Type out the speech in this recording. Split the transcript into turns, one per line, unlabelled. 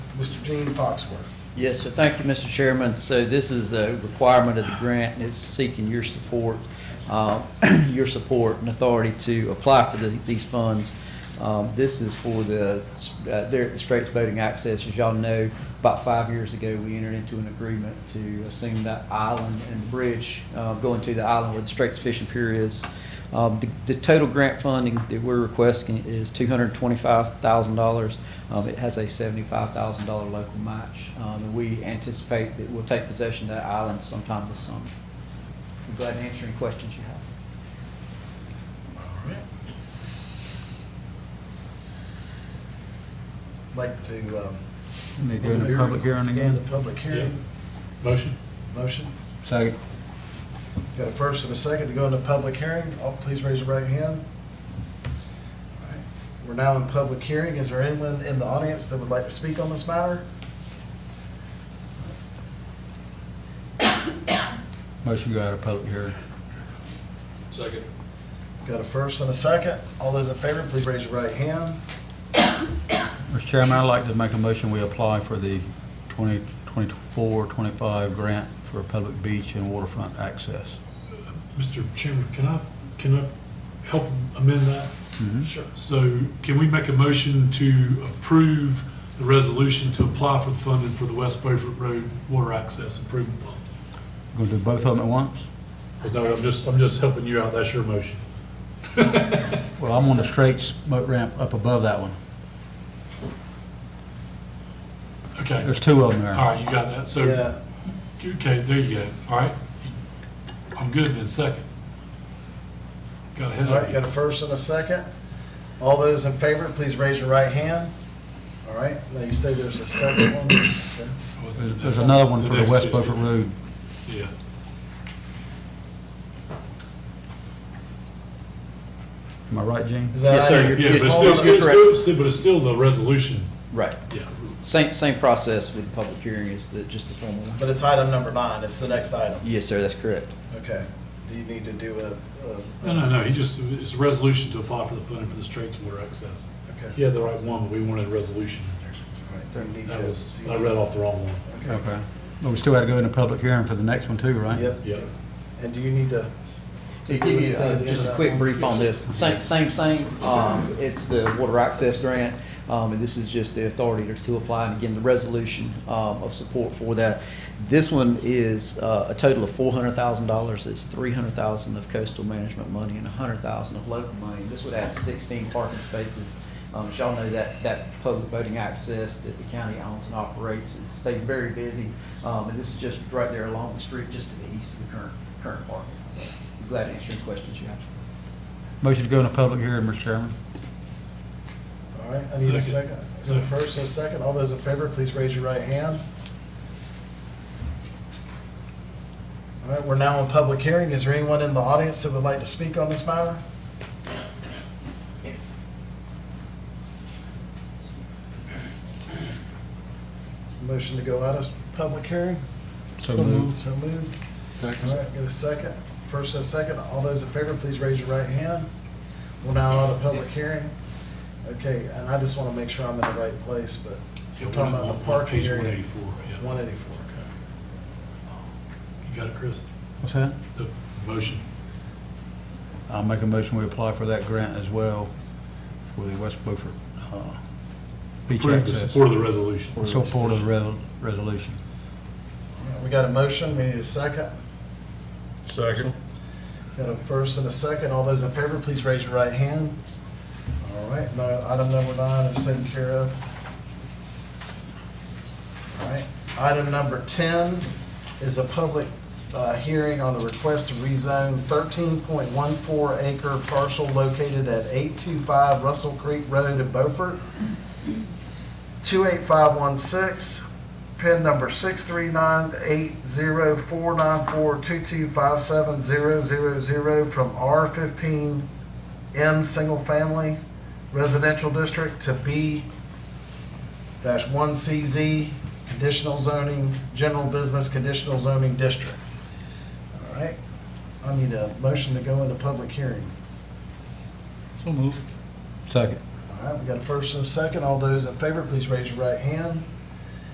Mr. Gene Foxworth.
Yes, sir. Thank you, Mr. Chairman. So this is a requirement of the grant, and it's seeking your support, uh, your support and authority to apply for the- these funds. Um, This is for the, uh, there at the Straits Boating Access. As y'all know, about five years ago, we entered into an agreement to assume that island and bridge uh, going to the island where the Straits Fishing Pier is. Um, The the total grant funding that we're requesting is $225,000. Um, It has a $75,000 local match. Um, and We anticipate that we'll take possession of that island sometime this summer. I'm glad to answer any questions you have.
All right. Like to, um.
Need to go into public hearing
stand
again?
The public hearing,
Motion?
motion.
Second.
Got a first and a second to go into public hearing. All, please raise your right hand. All right. We're now in public hearing. Is there anyone in the audience that would like to speak on this matter?
Motion to go out of public hearing.
Second.
Got a first and a second. All those in favor, please raise your right hand.
Mr. Chairman, I'd like to make a motion, we apply for the 2024-25 grant for public beach and waterfront access.
Mr. Chairman, can I, can I help amend that? Sure. So can we make a motion to approve the resolution to apply for the funding for the West Beaufort Road Water Access Improvement Fund?
Going to do both of them at once?
Well, No, I'm just, I'm just helping you out. That's your motion.
Well, I'm on the straight boat ramp up above that one.
Okay.
There's two of them
All
there.
right, you got that. So,
Yeah,
okay, there you go. All right. I'm good then, second. Got ahead
all right, got
of
a
you.
first and a second. All those in favor, please raise your right hand. All right, now you say there's a second one. Okay.
What's the
There's there's
next-
another one for the
next
West
is-
Beaufort Road.
Yeah.
Am I right, Gene?
Is that
Yes,
how
sir,
you-
you're-
Yeah, but it's
Hold
still,
on, you're
it's still, it's still- but it's still the resolution,
Right.
yeah.
Same, same process with the public hearing is the, just the formal one.
But it's item number nine, it's the next item.
Yes, sir, that's correct.
Okay, do you need to do a- a?
No, no, no, he just, it's a resolution to apply for the funding for the Straits Water Access.
Okay.
He had the right one, but we wanted a resolution in
All right, do you need
there. That
to-
was,
do you
I
need-
read off the wrong one.
Okay.
Okay. But we still had to go into public hearing for the next one too, right?
Yep,
Yeah,
and do you need to?
To give you uh, just a quick brief on this, same, same thing, um, it's the water access grant, um, and this is just the authority to- to apply, and again, the resolution, um, of support for that. This one is, uh, a total of four hundred thousand dollars, it's three hundred thousand of coastal management money and a hundred thousand of local money. This would add sixteen parking spaces, um, as y'all know, that, that public boating access that the county owns and operates, it stays very busy. Um, and this is just right there along the street, just to the east of the current, current parking, so I'm glad to answer any questions you have.
Motion to go into public hearing, Mr. Chairman.
All right, I need a
Second.
second. Is there a First and a second, all those in favor, please raise your right hand. All right, we're now in public hearing. Is there anyone in the audience that would like to speak on this matter? Motion to go out of public hearing?
So moved.
So moved. All right, get a second. First and a second. All those in favor, please raise your right hand. We're now out of public hearing. Okay, and I just want to make sure I'm in the right place, but
Yeah,
we're talking
one-
about
one-
the parking
page
area.
184, yeah.
184, okay.
You got it, Chris?
What's that?
The motion.
I'll make a motion, we apply for that grant as well for the West Beaufort uh, beach
Approve the
access.
support of the resolution.
Support of the re- resolution.
All right, We got a motion, we need a second.
Second.
Got a first and a second. All those in favor, please raise your right hand. All right, no, item number nine is taken care of. All right, item number 10 is a public uh, hearing on the request to rezone 13.14 acre parcel located at 825 Russell Creek Road in Beaufort, 28516, PIN number 639-80494-2257000 from R15M Single Family Residential District to B-1CZ Conditional Zoning, General Business Conditional Zoning District. All right, I need a motion to go into public hearing.
Second.
All right, we got a first and a second. All those in favor, please raise your right hand.